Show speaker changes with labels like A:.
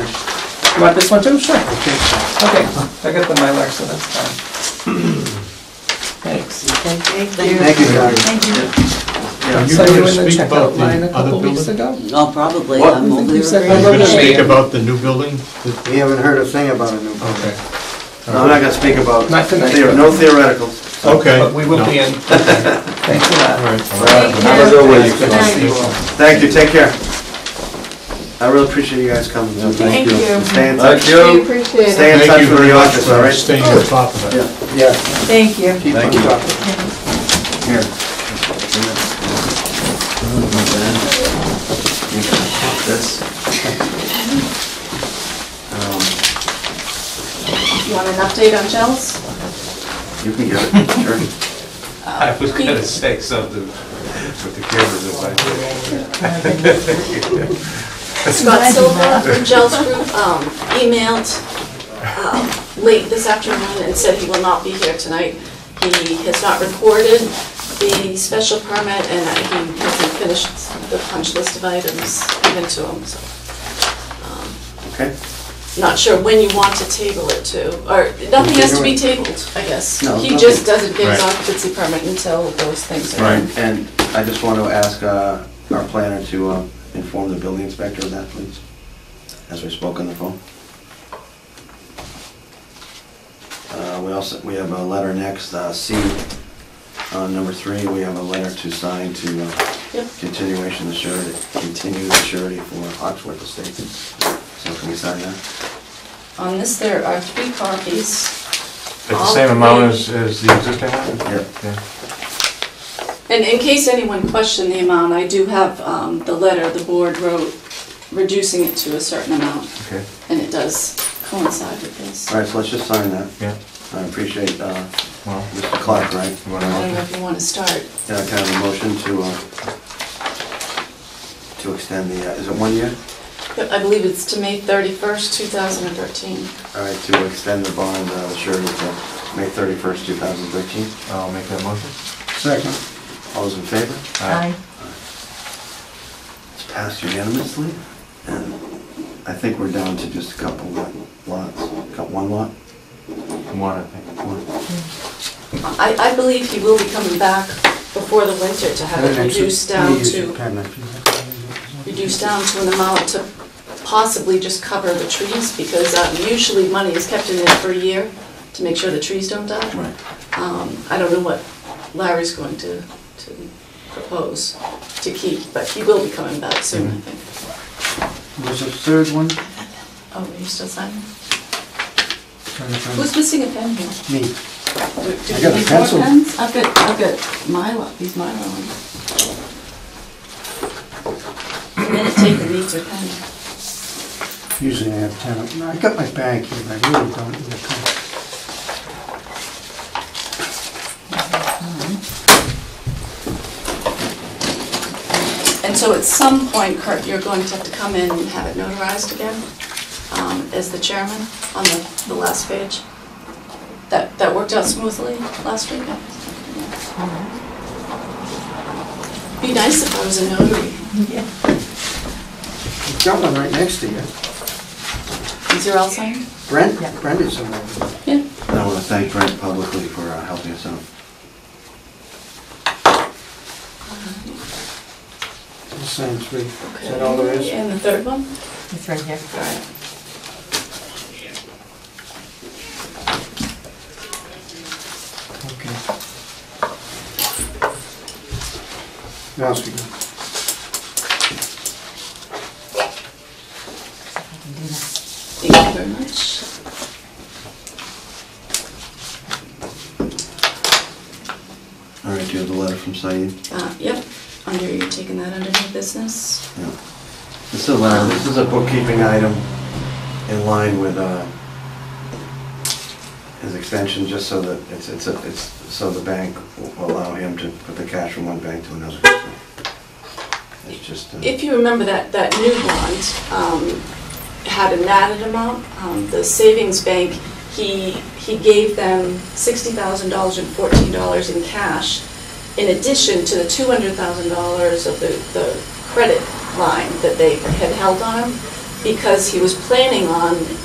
A: You want this one too? Sure. Okay, I got the Mylar, so that's fine. Thanks.
B: Thank
C: Thank you, guys.
B: Thank you.
D: Are you
A: So you were
D: going
A: in the
D: to speak about
A: checkout line
D: the
A: a
D: other
A: couple weeks
D: building?
A: ago?
B: Oh, probably,
C: What?
B: I'm
A: I think
B: over
A: you said
D: Are
B: there.
D: you going to
A: Yeah.
D: speak about the new building? The-
C: We haven't heard a thing about a new building.
D: Okay.
C: No, I'm not gonna speak about,
A: Not tonight,
C: there
A: but-
C: are no theoreticals.
D: Okay.
A: But we will
D: No.
A: be in. Thanks a
D: All
A: lot.
D: right.
C: Have a good week.
B: Good night.
C: Thank you, take care. I really appreciate you guys coming.
E: Thank you.
C: Stay in touch.
E: We appreciate it.
C: Stay in touch
D: Thank you
C: with
D: very
C: the
D: much
C: office, all
D: for
C: right?
D: staying on top of it.
C: Yeah, yeah,
E: Thank you.
C: keep on talking.
F: Here. This. Um,
E: You want an update on Chels?
F: You can get it, sure.
G: I was gonna say something with the cameras if I did.
E: Scott Silva from Gels Group um, emailed um, late this afternoon and said he will not be here tonight. He has not recorded the special permit and that he hasn't finished the punch list of items given to him, so. um,
C: Okay.
E: Not sure when you want to table it to, or nothing has to be tabled, I guess.
C: No,
E: He
C: nothing.
E: just doesn't get his
D: Right.
E: occupancy permit until those things are. done.
C: And I just want to ask uh, our planner to um, inform the building inspector of that, please, as we spoke on the phone. Uh, We also, we have a letter next, uh, C, uh, number three, we have a letter to sign to uh,
E: Yep.
C: continuation of surety, continue the surety for Oxford Estates. So can we sign that?
E: On this, there are three copies.
G: At the same amount as, as the existing one?
C: Yep.
G: Yeah.
E: And in case anyone questioned the amount, I do have um, the letter the board wrote reducing it to a certain amount,
G: Okay,
E: and it does coincide with this.
C: All
E: I
C: right, so let's just sign that.
G: yeah,
C: I appreciate uh,
G: well,
C: Mr. Clark, right?
G: you want
E: don't know
G: to,
E: if you want to start.
C: Yeah, Uh, can I have a motion to, uh, to extend the, uh, is it one year?
E: I believe it's to May 31st, 2013.
C: All right, to extend the bond uh, surety to May 31st, 2013.
G: I'll make that motion.
C: Second. All those in favor?
G: Aye.
C: It's passed unanimously, and I think we're down to just a couple of lots. Got one lot?
G: One, I think.
C: One.
E: I, I believe he will be coming back before the winter to have it reduced down to, reduced down to an amount to possibly just cover the trees, because uh, usually money is kept in there for a year to make sure the trees don't die.
C: Right.
E: Um, I don't know what Larry's going to, to propose to keep, but he will be coming back soon, I think.
C: Was the third one?
E: Oh, are you still signing? Who's missing a pen here?
C: Me.
E: Do do
C: I got
E: we
C: a
E: need more
C: pencil.
E: pens? I've got, I've got Mylar, these Mylar ones. I'm gonna take the needs or pen.
C: Usually I have 10. I got my bag here, but I really don't need a pen.
E: And so at some point, Kurt, you're going to have to come in and have it notarized again, um, as the chairman on the, the last page. That, that worked out smoothly last week? Be nice if I was a notary.
C: You've Got one right next to you.
E: Is your all signed?
C: Brent, Brent is in there.
E: Yeah.
C: And I want to thank Brent publicly for uh, helping us out. Sign three. Is that all there is?
E: And the third one?
B: It's right here.
E: All right.
C: Okay. What else we got?
E: Thank you very much.
C: All right, do you have the letter from Said?
E: Uh, Yep, under, you're taking that under new business?
C: Yeah. This is a letter, this is a bookkeeping item in line with uh, his extension, just so that, it's, it's, a- it's, so the bank will allow him to put the cash from one bank to another. It's just, uh,
E: If you remember that, that new bond um, had an added amount, Um, the savings bank, he, he gave them $60,000 and $14 in cash in addition to the $200,000 of the, the credit line that they had held on him because he was planning on